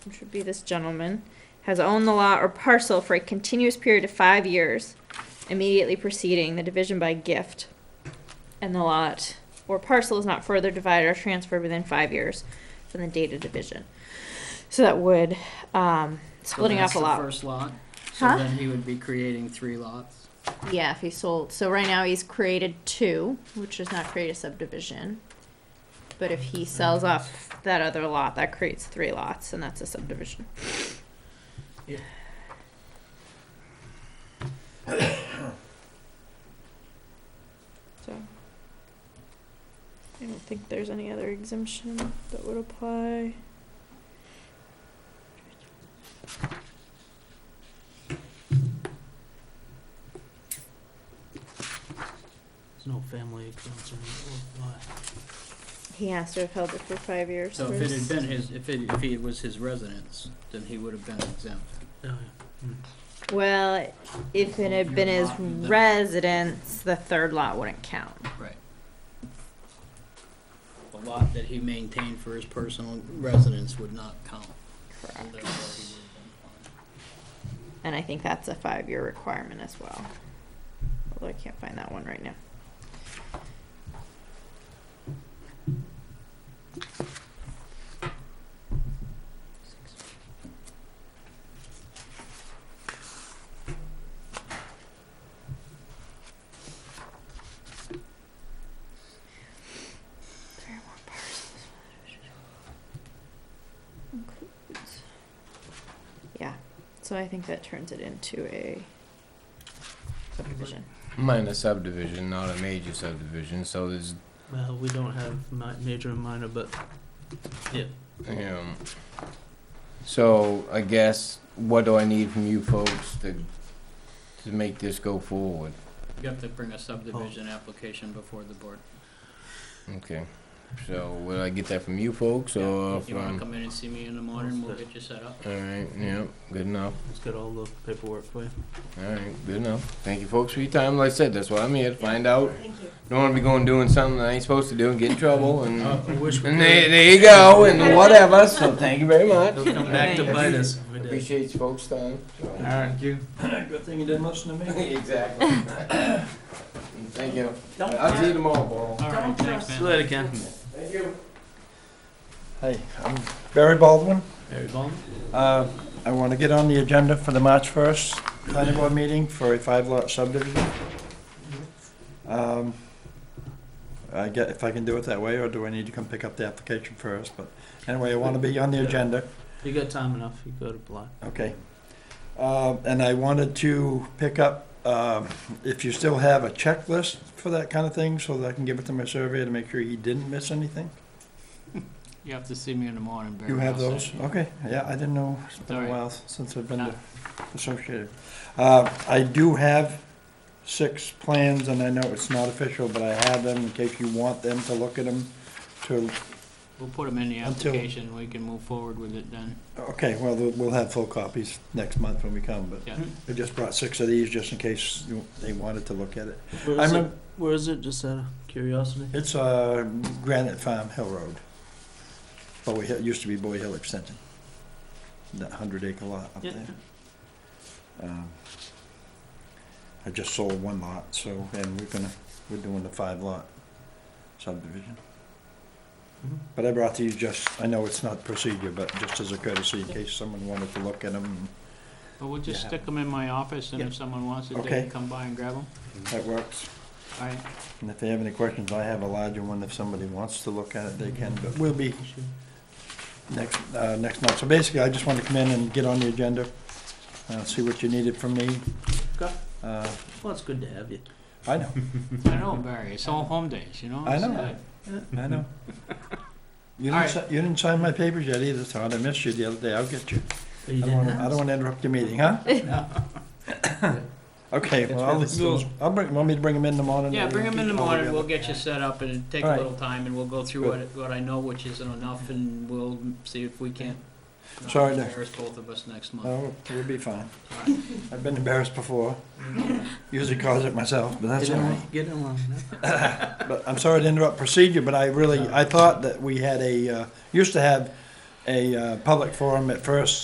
which would be this gentleman, has owned the lot or parcel for a continuous period of five years immediately preceding the division by gift, and the lot or parcel is not further divided or transferred within five years from the date of division. So that would, um, So splitting that's up a the lot. First lot, so Huh? then he would be creating three lots. Yeah, if he sold. So right now he's created two, which does not create a subdivision. But if he sells off that other lot, that creates three lots, and that's a subdivision. So. I don't think there's any other exemption that would apply. There's no family exemption. or what? He has to have held it for five years. So for if it his- had been his, if it, if it was his residence, then he would have been exempt. Oh, yeah. Well, if it had been his residence, the third lot wouldn't count. The lot that he maintained for his personal residence would not count. so Correct. therefore he would have been And I think that's a five-year requirement as well. Although I can't find that one right now. Three or more parcels. Includes. Yeah, so I think that turns it into a subdivision. Minor subdivision, not a major subdivision, so there's, Well, we don't have mi- major and minor, but you know. So I guess, what do I need from you folks to, to make this go forward? You have to bring a subdivision application before the board. Okay, so will I get that from you folks or If you wanna from? come in and see me in the morning, we'll get you set up. Alright, yeah, good enough, let's get all the paperwork for you. alright, good enough. Thank you folks for your time, like I said, that's why I'm here, to find out. Don't wanna be going doing something that I ain't supposed to do and get in trouble and, Uh-huh. and there, there you go, and whatever, so thank you very much. They'll come back to bite us. We did. Appreciate you folks' time. so. Alright, you. Good thing you didn't listen to me. Exactly. Thank you. Don't I'll see you tomorrow, Paul. All right, thanks, man. See you later, Ken. Thank you. Hey, I'm Barry Baldwin. Barry Bowman? Uh, I want to get on the agenda for the March 1st planning board meeting for a five-lot subdivision. Um, I get, if I can do it that way, or do I need to come pick up the application first? But anyway, I want to be on the agenda. You got time enough, you go to apply. Okay. Um, And I wanted to pick up, um, if you still have a checklist for that kind of thing, so that I can give it to my surveyor to make sure he didn't miss anything? You have to see me in the morning, Barry. You have I'll those? say. Okay, yeah, I didn't know. It's been a Sorry. Ah. while since I've No. been associated. Uh, I do have six plans, and I know it's not official, but I have them in case you want them to look at them to, We'll put them in the Until- application, we can move forward with it then. okay, well, we'll we'll have full copies next month when we come, but Yeah. I just brought six of these just in case you- they wanted to look at it. Where I is it, remem- where is it, just out of curiosity? It's uh, Granite Farm Hill Road. Bowie Hill, used to be Bowie Hill Extension. That hundred acre lot up Yeah. there. Um, I just sold one lot, so, and we're gonna, we're doing the five lot subdivision. Mhm. But I brought these just, I know it's not procedure, but just as a courtesy in case someone wanted to look at them, But we'll just Yeah. stick them in my office, and Yeah. if someone wants it, they Okay. can come by and grab them. that works. All right, And if they have any questions, I have a larger one, if somebody wants to look at it, they can, but we'll be next, uh, next month. So basically, I just want to come in and get on the agenda, uh, see what you needed from me. Okay. Uh, Well, it's good to have you. I know, I know, Barry, it's all home days, you know? I It's know. good. I know. You All didn't, right. si- you didn't sign my papers yet either, Todd. I missed you the other day. I'll get you. Oh, I you don't didn't wanna, I don't wanna interrupt your meeting, huh? Okay, well, I'll, That's right. I'll bring, want me to bring them in the morning? Yeah, bring them in the All morning, together. we'll get you set up, and it'll take a All right. little time, and we'll go through what, what I know, which isn't enough, and we'll see if we can't. uh, Sorry to- Embarrass both of us next month. No, we'll be fine. I've been embarrassed before. Usually cause it myself, but that's all right. Get in line. But I'm sorry to interrupt procedure, but I really, I thought that we had a, uh, used to have a uh, public forum at first